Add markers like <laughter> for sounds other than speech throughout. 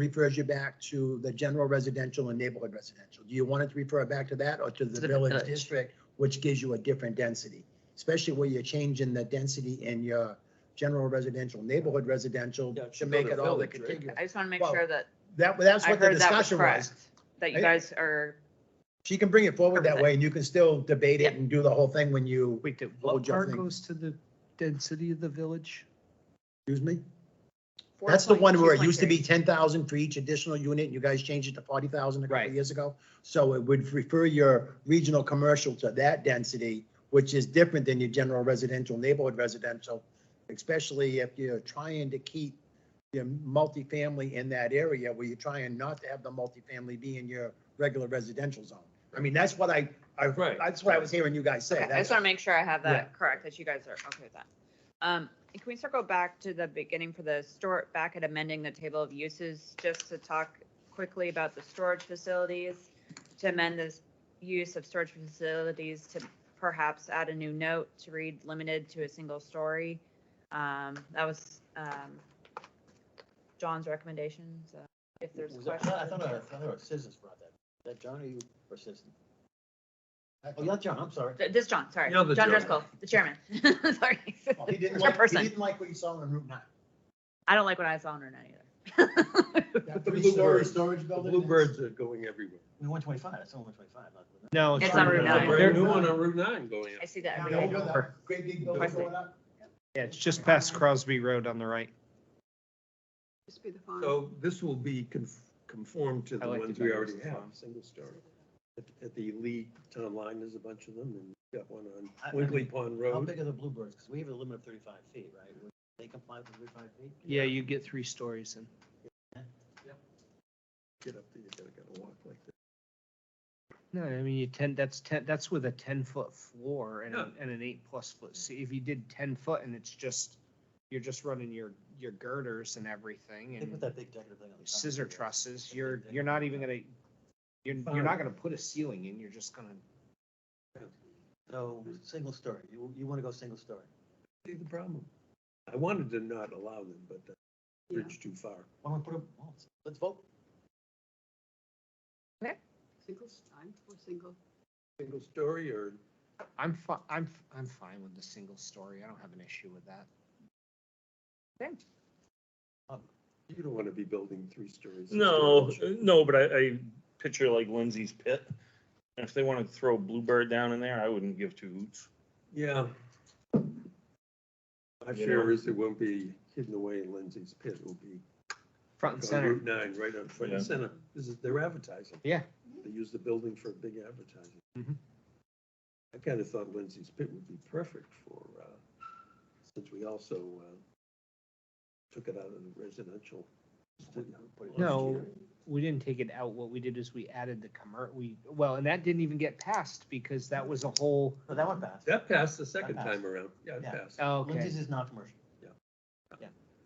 refers you back to the general residential and neighborhood residential. Do you want it to refer back to that or to To the the village village. district, which gives you a different density? Especially where you're changing the density in your general residential, neighborhood residential Yeah, it to should go make to it all the village, right? contiguous. I just want to make Well, sure that That, that's I what the heard that was discussion was. correct, that you Right? guys are, She can bring it forward that way and you can still debate it Yeah. and do the whole thing when you, Wait, did What would what y'all part think? goes to the density of the village? excuse me? four That's the point- one where it 2.3. used to be ten thousand for each additional unit, and you guys changed it to forty thousand a couple Right. of years ago. So it would refer your regional commercial to that density, which is different than your general residential, neighborhood residential, especially if you're trying to keep your multifamily in that area where you're trying not to have the multifamily be in your regular residential zone. I mean, that's what I, I, Right. that's what I was hearing you guys say. Okay, I That's- just want to make sure I have Yeah. that correct, that you guys are okay with that. Um, and can we circle back to the beginning for the store, back at amending the table of uses, just to talk quickly about the storage facilities? To amend this use of storage facilities to perhaps add a new note to read limited to a single story. Um, that was, um, John's recommendation, so if there's Was that- I questions. thought- I thought, I thought our citizens brought that. Is that John or you or citizen? Oh, not John, I'm sorry. Th- This John, sorry, You're the John chairman. Driscoll, the chairman, <laughs> sorry. Oh, He didn't It's our like, he person. didn't like what you saw on Route nine. I don't like what I saw on her either. That The three-story bluebird- storage The building. bluebirds are going everywhere. We one twenty-five, that's only one twenty-five. No. It's on Route not. nine. They're- Brand new one on Route nine going I up. see that every Down day. over that Great big building Presley. going up. Yeah, it's just past Crosby Road on the right. Just be the font. So this will be conf- conformed to I the like the ones we numbers. already have, single story. At, at the Lee Town Line, there's a bunch of them, and we've got one I- I on Wiggly mean, Pond How Road. big are the bluebirds? Because we have a limit of thirty-five feet, right? Would They comply with thirty-five feet? Yeah, you get three stories in. Get up there, you gotta, gotta walk like that. No, I mean, you ten, that's ten, that's with a ten foot floor and, a- and an eight plus foot. See, if you did ten foot and it's just, you're just running your, your girders and everything They put and that big decorative thing on the top. scissor trusses, you're, you're not even gonna, you're, you're Fine. not gonna put a ceiling in, you're just gonna, So, single story, you, you want to go single story. See the problem? I wanted to not allow them, but the Yeah. bridge too far. Why don't we put a, well, let's- let's vote. Single, I'm for single. Single story or I'm fi- I'm, f- I'm fine with the single story. I don't have an issue with that. You don't want to be building three stories. No, uh, no, but I, I picture like Lindsay's pit. And if they wanted to throw Bluebird down in there, I wouldn't give two hoots. Yeah. My You fear know. is it won't be hidden away in Lindsay's pit. It'll be Front and on center. Route nine, right on front and Yeah. center. This is their advertising. Yeah. They use the building for big advertising. Mhm. I kind of thought Lindsay's pit would be perfect for, uh, since we also, uh, took it out of the residential. No, we didn't take it out. What we did is we added the commer, we, well, and that didn't even get passed because that was a whole, No, that one passed. That passed the second That time around. Yeah, it Yeah. passed. oh, okay. Lindsay's is non-commercial.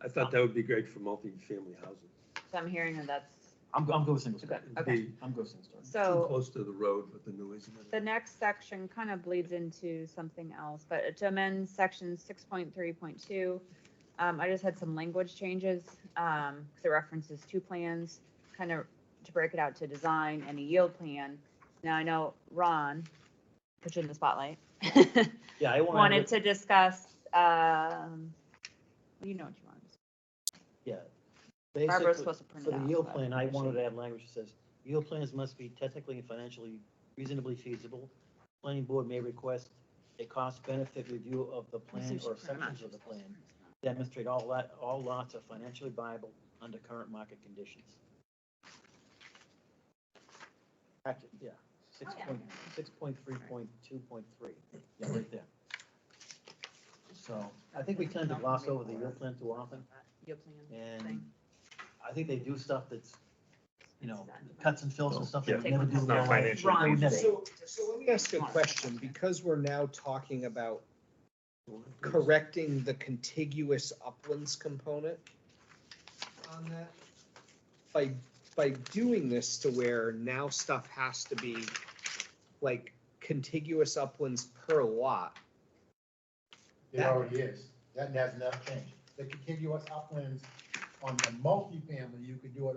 I thought that would be great for multifamily housing. So I'm hearing that that's, I'm, go- I'm going single story. It'd Okay. be I'm going single story. Too so close to the road with the noise. and the everything. next section kind of bleeds into something else, but to amend section six point three point two, um, I just had some language changes, um, 'cause it references two plans, kind of to break it out to design and a yield plan. Now I know Ron, put you in the spotlight, <laughs> Yeah, I wanted. wanted to discuss, um, you know what you want. Yeah. Barbara's Basically- supposed to print For it out. the yield but- plan, I wanted to add language that says, yield plans must be technically and financially reasonably feasible. Planning board may request a cost benefit review of the plan or sections of the plan. Demonstrate all lot, all lots are financially viable under current market conditions. Act- yeah, six yeah. point, six point three point two point three, yeah, right there. So, I think we tend to gloss over the yield plan too often. Yield plan. And thing. I think they do stuff that's, you know, cuts and fills and stuff they would Take never one do. step in their Not life. financially They would never- feasible. So, so let me ask you a question, because we're now talking about correcting the contiguous uplands component on that. By, by doing this to where now stuff has to be like contiguous uplands per lot. It already is. That has not changed. The contiguous uplands on the multifamily, you could do it